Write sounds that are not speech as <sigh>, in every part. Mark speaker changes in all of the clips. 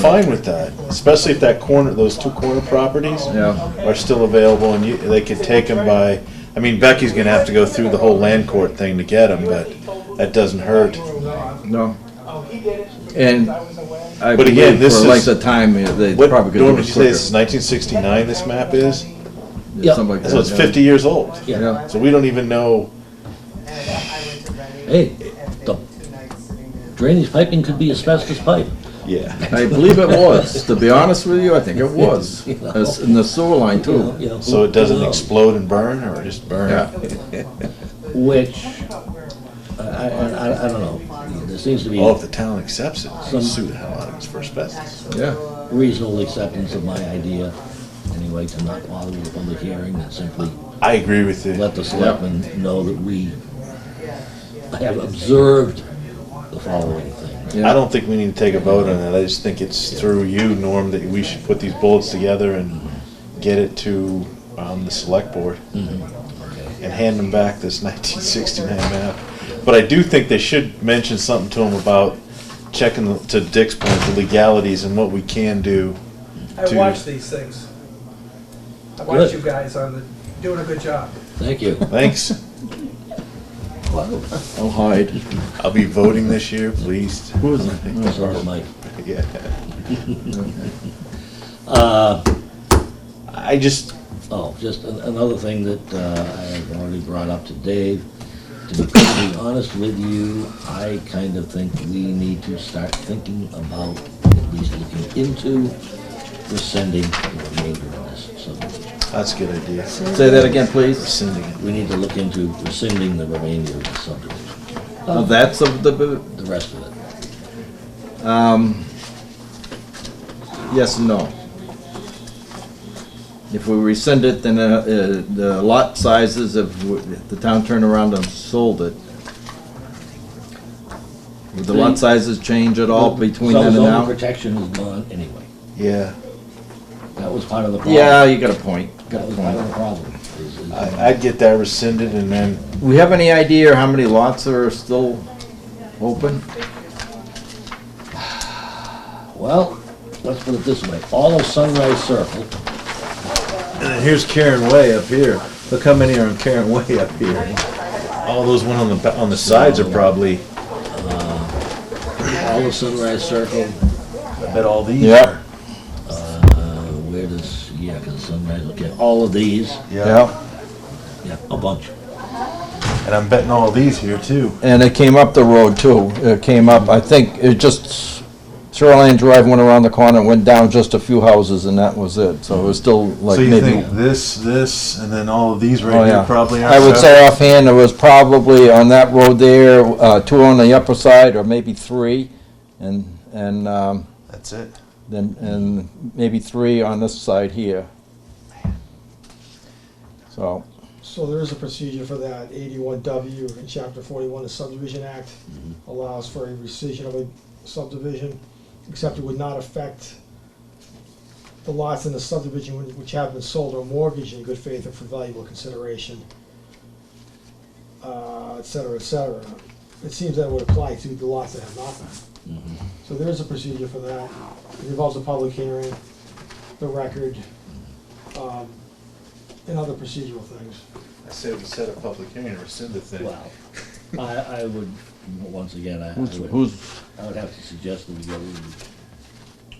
Speaker 1: fine with that, especially if that corner, those two corner properties
Speaker 2: Yeah.
Speaker 1: are still available and you, they could take them by, I mean, Becky's gonna have to go through the whole land court thing to get them, but that doesn't hurt.
Speaker 2: No. And I
Speaker 1: But again,
Speaker 2: believe
Speaker 1: this
Speaker 2: for a length
Speaker 1: is-
Speaker 2: of time, uh, they
Speaker 1: What,
Speaker 2: probably could
Speaker 1: Norm,
Speaker 2: do
Speaker 1: did
Speaker 2: it
Speaker 1: you say
Speaker 2: quicker.
Speaker 1: this is nineteen sixty-nine, this map is?
Speaker 3: Yeah.
Speaker 2: Something like that.
Speaker 1: So it's fifty years old.
Speaker 3: Yeah.
Speaker 2: Yeah.
Speaker 1: So we don't even know,
Speaker 3: Hey, the drainage piping could be asbestos pipe.
Speaker 1: yeah.
Speaker 2: I believe it was, to be honest with <laughs> you, I think it was, It's in the sewer line
Speaker 3: you
Speaker 2: too.
Speaker 3: know,
Speaker 1: So it doesn't
Speaker 3: uh,
Speaker 1: explode and burn or just burn?
Speaker 2: Yeah,
Speaker 3: Which, I, I, I- I don't know, there seems to be
Speaker 1: Oh, if the town accepts it, they'll sue the hell out of us for asbestos.
Speaker 2: yeah,
Speaker 3: reasonable acceptance of my idea, anyway, to not bother with a public hearing, and simply
Speaker 1: I agree with you.
Speaker 3: let the selectmen know that we have observed the following thing.
Speaker 1: I
Speaker 2: yeah.
Speaker 1: don't think we need to take a vote on that, I just think it's through you, Norm, that we should put these bullets together and get it to, um, the select board.
Speaker 3: Mm-hmm.
Speaker 1: And hand them back this nineteen sixty-nine map. But I do think they should mention something to them about checking, the- to Dick's point, the legalities and what we can do.
Speaker 4: I
Speaker 1: to-
Speaker 4: watch these things. I watch
Speaker 3: Good.
Speaker 4: you guys on the, doing a good job.
Speaker 3: Thank you.
Speaker 1: <laughs> Thanks,
Speaker 2: I'll hide.
Speaker 1: I'll be voting this year, pleased.
Speaker 2: Who is it?
Speaker 3: That's all right, Mike.
Speaker 1: <laughs> Yeah.
Speaker 3: Uh,
Speaker 1: I just,
Speaker 3: Oh, just an- another thing that uh, I have already brought up to Dave. To be completely honest with you, I kind of think we need to start thinking about, at least looking into rescinding the remainder of this subdivision.
Speaker 1: that's a good idea.
Speaker 2: Say that again, please,
Speaker 1: Rescinding it.
Speaker 3: We need to look into rescinding the remainder of the subdivision,
Speaker 2: Of that subdivision,
Speaker 3: the rest of it.
Speaker 2: um, yes and no. If we rescind it, then uh, uh, the lot sizes, if w- if the town turned around and sold it, would the lot sizes change at all between then and
Speaker 3: Some
Speaker 2: now?
Speaker 3: zoning protection is gone anyway.
Speaker 1: Yeah,
Speaker 3: That was part of the problem.
Speaker 2: Yeah, you got a point,
Speaker 3: That
Speaker 2: got a
Speaker 3: was part of
Speaker 2: point.
Speaker 3: the problem. is- is-
Speaker 1: I, I'd get that rescinded and then
Speaker 2: We have any idea how many lots are still open?
Speaker 3: Well, let's put it this way. All of Sunrise Circle
Speaker 1: And then here's Karen Way up here. Look how many are on Karen Way up here. All those one on the, ba- on the sides are probably,
Speaker 3: All of Sunrise Circle,
Speaker 1: I bet all these
Speaker 2: Yeah.
Speaker 1: are.
Speaker 3: uh, where does, yeah, because Sunrise, okay, all of these,
Speaker 2: Yeah.
Speaker 3: yeah, a bunch.
Speaker 1: And I'm betting all these here too.
Speaker 2: And it came up the road too, it came up, I think, it just, Shoreline Drive went around the corner, went down just a few houses and that was it, so it was still like
Speaker 1: So you
Speaker 2: maybe.
Speaker 1: think this, this, and then all of these
Speaker 2: Oh,
Speaker 1: right here
Speaker 2: yeah.
Speaker 1: probably are.
Speaker 2: I would say offhand, there was probably on that road there, uh, two on the upper side, or maybe three, and, and, um,
Speaker 1: That's it.
Speaker 2: then, and maybe three on this side here. So,
Speaker 5: So there is a procedure for that, eighty-one W in chapter forty-one, the subdivision act allows for a rescission of a subdivision, except it would not affect the lots in the subdivision which- which have been sold or mortgaged in good faith or for valuable consideration, uh, et cetera, et cetera. It seems that would apply to the lots that have not been.
Speaker 3: Mm-hmm.
Speaker 5: So there is a procedure for that, it involves a public hearing, the record, um, and other procedural things.
Speaker 1: I said we set a public hearing and rescind the thing.
Speaker 3: Wow. I, I would, once again, I I
Speaker 2: who's,
Speaker 3: would,
Speaker 2: who's,
Speaker 3: I would have to suggest that we go and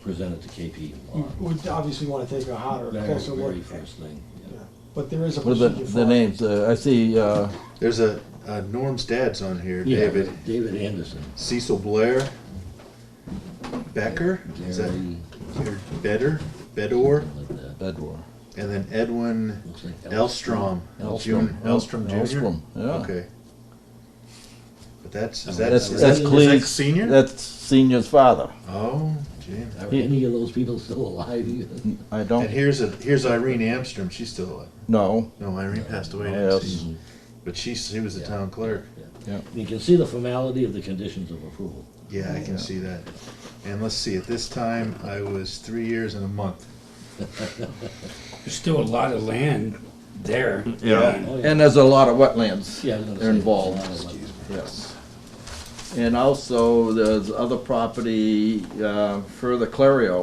Speaker 3: present it to KP.
Speaker 5: You
Speaker 1: Mm-hmm.
Speaker 5: would obviously want to take a hotter,
Speaker 3: Very,
Speaker 5: closer look,
Speaker 3: very first thing. yeah.
Speaker 5: but there is a
Speaker 2: what are the,
Speaker 5: procedure for
Speaker 2: the
Speaker 5: it.
Speaker 2: names, uh, I see, uh,
Speaker 1: There's a, uh, Norm's dad's on here,
Speaker 3: Yeah,
Speaker 1: David.
Speaker 3: David Anderson.
Speaker 1: Cecil Blair. Becker, is that,
Speaker 3: Gary,
Speaker 1: or Better, Bedore,
Speaker 3: like that.
Speaker 2: Bedwar.
Speaker 1: and then Edwin
Speaker 3: Looks like
Speaker 1: Elstrom.
Speaker 2: Elstrom.
Speaker 1: Jun- Elstrom Junior?
Speaker 2: Elstrom, yeah.
Speaker 1: Okay. But that's, is that,
Speaker 2: That's,
Speaker 1: is that,
Speaker 2: that's
Speaker 1: is that
Speaker 2: Cleve's,
Speaker 1: senior?
Speaker 2: that's senior's father.
Speaker 1: Oh, gee.
Speaker 3: Are any of those people still alive even?
Speaker 2: I
Speaker 1: And
Speaker 2: don't
Speaker 1: here's a, here's Irene Amstrom, she's still alive.
Speaker 2: know.
Speaker 1: No, Irene passed away
Speaker 2: Yes.
Speaker 1: next year. But she, she was the
Speaker 3: Yeah.
Speaker 1: town clerk.
Speaker 3: You can see the formality of the conditions of approval.
Speaker 1: Yeah, I can see that. And let's see, at this time, I was three years and a month.
Speaker 6: There's still a lot of land there.
Speaker 2: Yeah.
Speaker 3: Oh, yeah.
Speaker 2: And there's a lot of wetlands
Speaker 3: Yeah, I was gonna
Speaker 2: they're
Speaker 3: say,
Speaker 2: involved.
Speaker 3: it's a lot of-
Speaker 2: Yes. And also, there's other property, uh, further Clario,